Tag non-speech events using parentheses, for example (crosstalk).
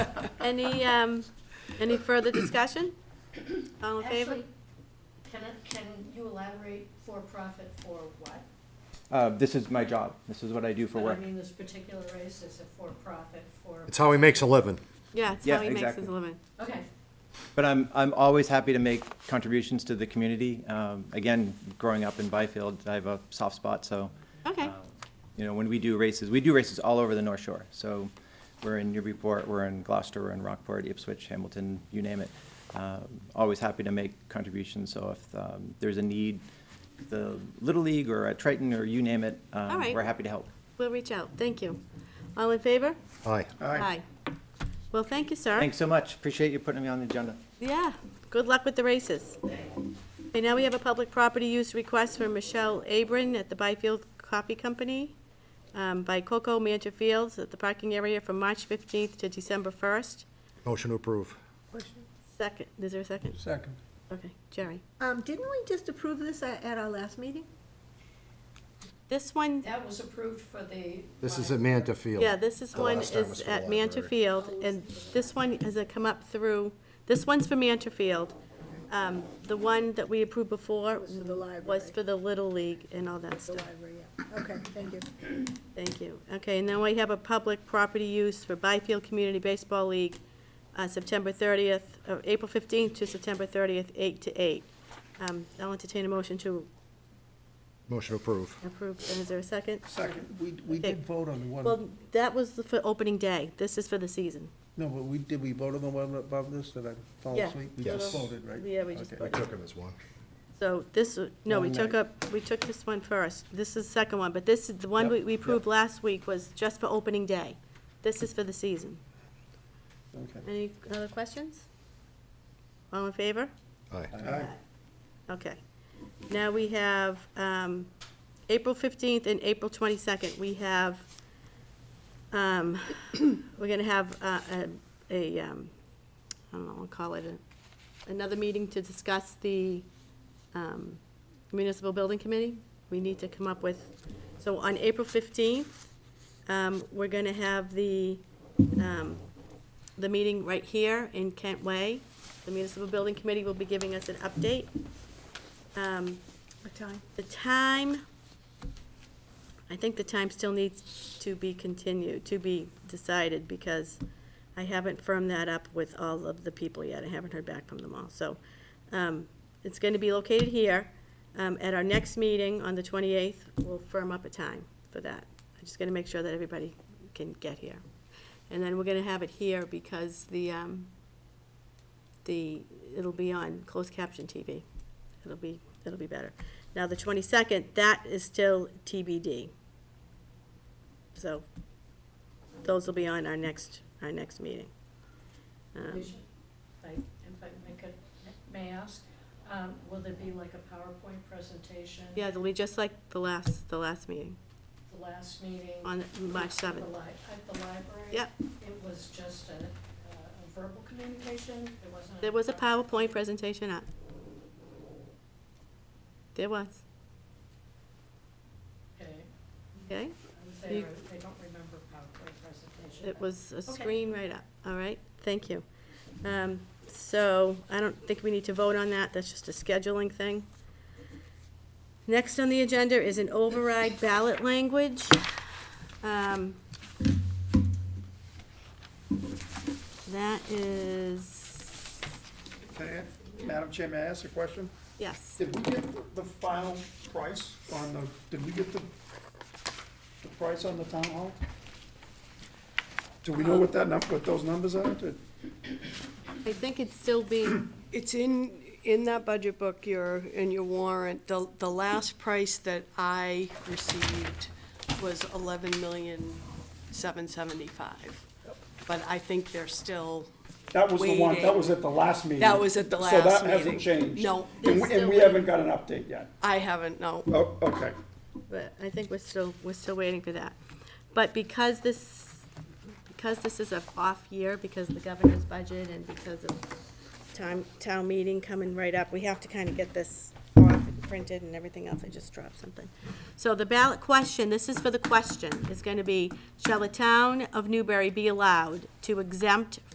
(laughs) Any, um, any further discussion? All in favor? Actually, Can, I- can you elaborate for-profit for what? Uh, this is my job. This is what I do for But work. I mean, this particular race is a for-profit for, It's how he makes a living. Yeah, it's Yeah, how he makes exactly. his living. okay, But I'm, I'm always happy to make contributions to the community. Um, again, growing up in Byfield, I have a soft spot, so. Okay, um, You know, when we do races, we do races all over the North Shore. So we're in Newburyport, we're in Gloucester, we're in Rockport, Ipswich, Hamilton, you name it. Um, Always happy to make contributions, so if um, there's a need, the Little League or at Triton or you name it, um, All right. we're happy to help. we'll reach out. Thank you. All in favor? Aye. Aye. Well, thank you, sir. Thanks so much. Appreciate you putting me on the agenda. Yeah, good luck with the races. Okay, now we have a public property use request for Michelle Abram at the Byfield Coffee Company um, by Coco Mantra Fields at the parking area from March 15th to December 1st. Motion to approve. Second, is there a second? Second. Okay, Jerry. Um, didn't we just approve this at, at our last meeting? This one, that was approved for the. This is Amanda Field. yeah, this is The one last time was is for the at Mantra library. Field, and this one has uh, come up through, this one's for Mantra Field. Um, The one that we approved before Was for the was library. for the Little League and all that The stuff. library, yeah. Okay, thank you. Thank you. Okay, and then we have a public property use for Byfield Community Baseball League, uh, September 30th, uh, April 15th to September 30th, 8 to 8. Um, I'll entertain a motion to Motion to approve. approve. And Is there a second? Second, we, we Okay. did vote on the one, Well, that was the- for opening day. This is for the season. no, but we, did we vote on the one above this, did I fall Yeah. asleep? We just voted, right? Yeah, we just Okay. I voted. took him as one. So this, uh, no, we One took night. up, we took this one first. This is the second one, but this is, the one Yep, we we yep. approved last week was just for opening day. This is for the season. Okay. Any other questions? All in favor? Aye. Aye. Okay. Now we have um, April 15th and April 22nd. We have, um, (coughs) we're going to have uh, a, a, um, I don't know, I'll call it a- another meeting to discuss the um, municipal building committee. We need to come up with, so on April 15th, um, we're going to have the, um, the meeting right here in Kent Way. The municipal building committee will be giving us an update. Um, What time? The time, I think the time still needs to be continued, to be decided, because I haven't firmed that up with all of the people yet. I haven't heard back from them all. So um, it's going to be located here. Um, At our next meeting on the 28th, we'll firm up a time for that. I'm just going to make sure that everybody can get here. And then we're going to have it here because the, um, the, it'll be on closed caption TV. It'll be, it'll be better. Now, the twenty-second, that is still TBD. So, those will be on our next, our next meeting. Um, We should- I- If I make a, may I ask, um, will there be like a PowerPoint presentation? Yeah, it'll be just like the last, the last meeting, The last meeting? on March at the seventh. li- At the library? Yep. It was just a, a verbal communication, there wasn't? There was a PowerPoint presentation up. There was, Okay, okay? I was there, I don't remember PowerPoint presentation. It was a Okay. screen right up, all right, thank you. Um, So, I don't think we need to vote on that, that's just a scheduling thing. Next on the agenda is an override ballot language. Um, That is, Can I ask- Madam Chair, may I ask a question? yes, Did we get the- the final price on the, did we get the, the price on the town hall? Do we know what that number, what those numbers are? Did- I think it's still being, It's in, in that budget book, your, in your warrant, the, the last price that I received was eleven million, seven seventy-five. But I think they're still, That was the one, that Waiting. was at the last meeting. That was at the So last that hasn't meeting. changed? No. And we, and we haven't got an update yet? I haven't, no. Oh, okay. but I think we're still, we're still waiting for that. But because this, because this is an off year, because of the governor's budget and because of town, town meeting coming right up, we have to kind of get this off and printed and everything else, I just dropped something. So the ballot question, this is for the question, is gonna be, shall the town of Newbury be allowed to exempt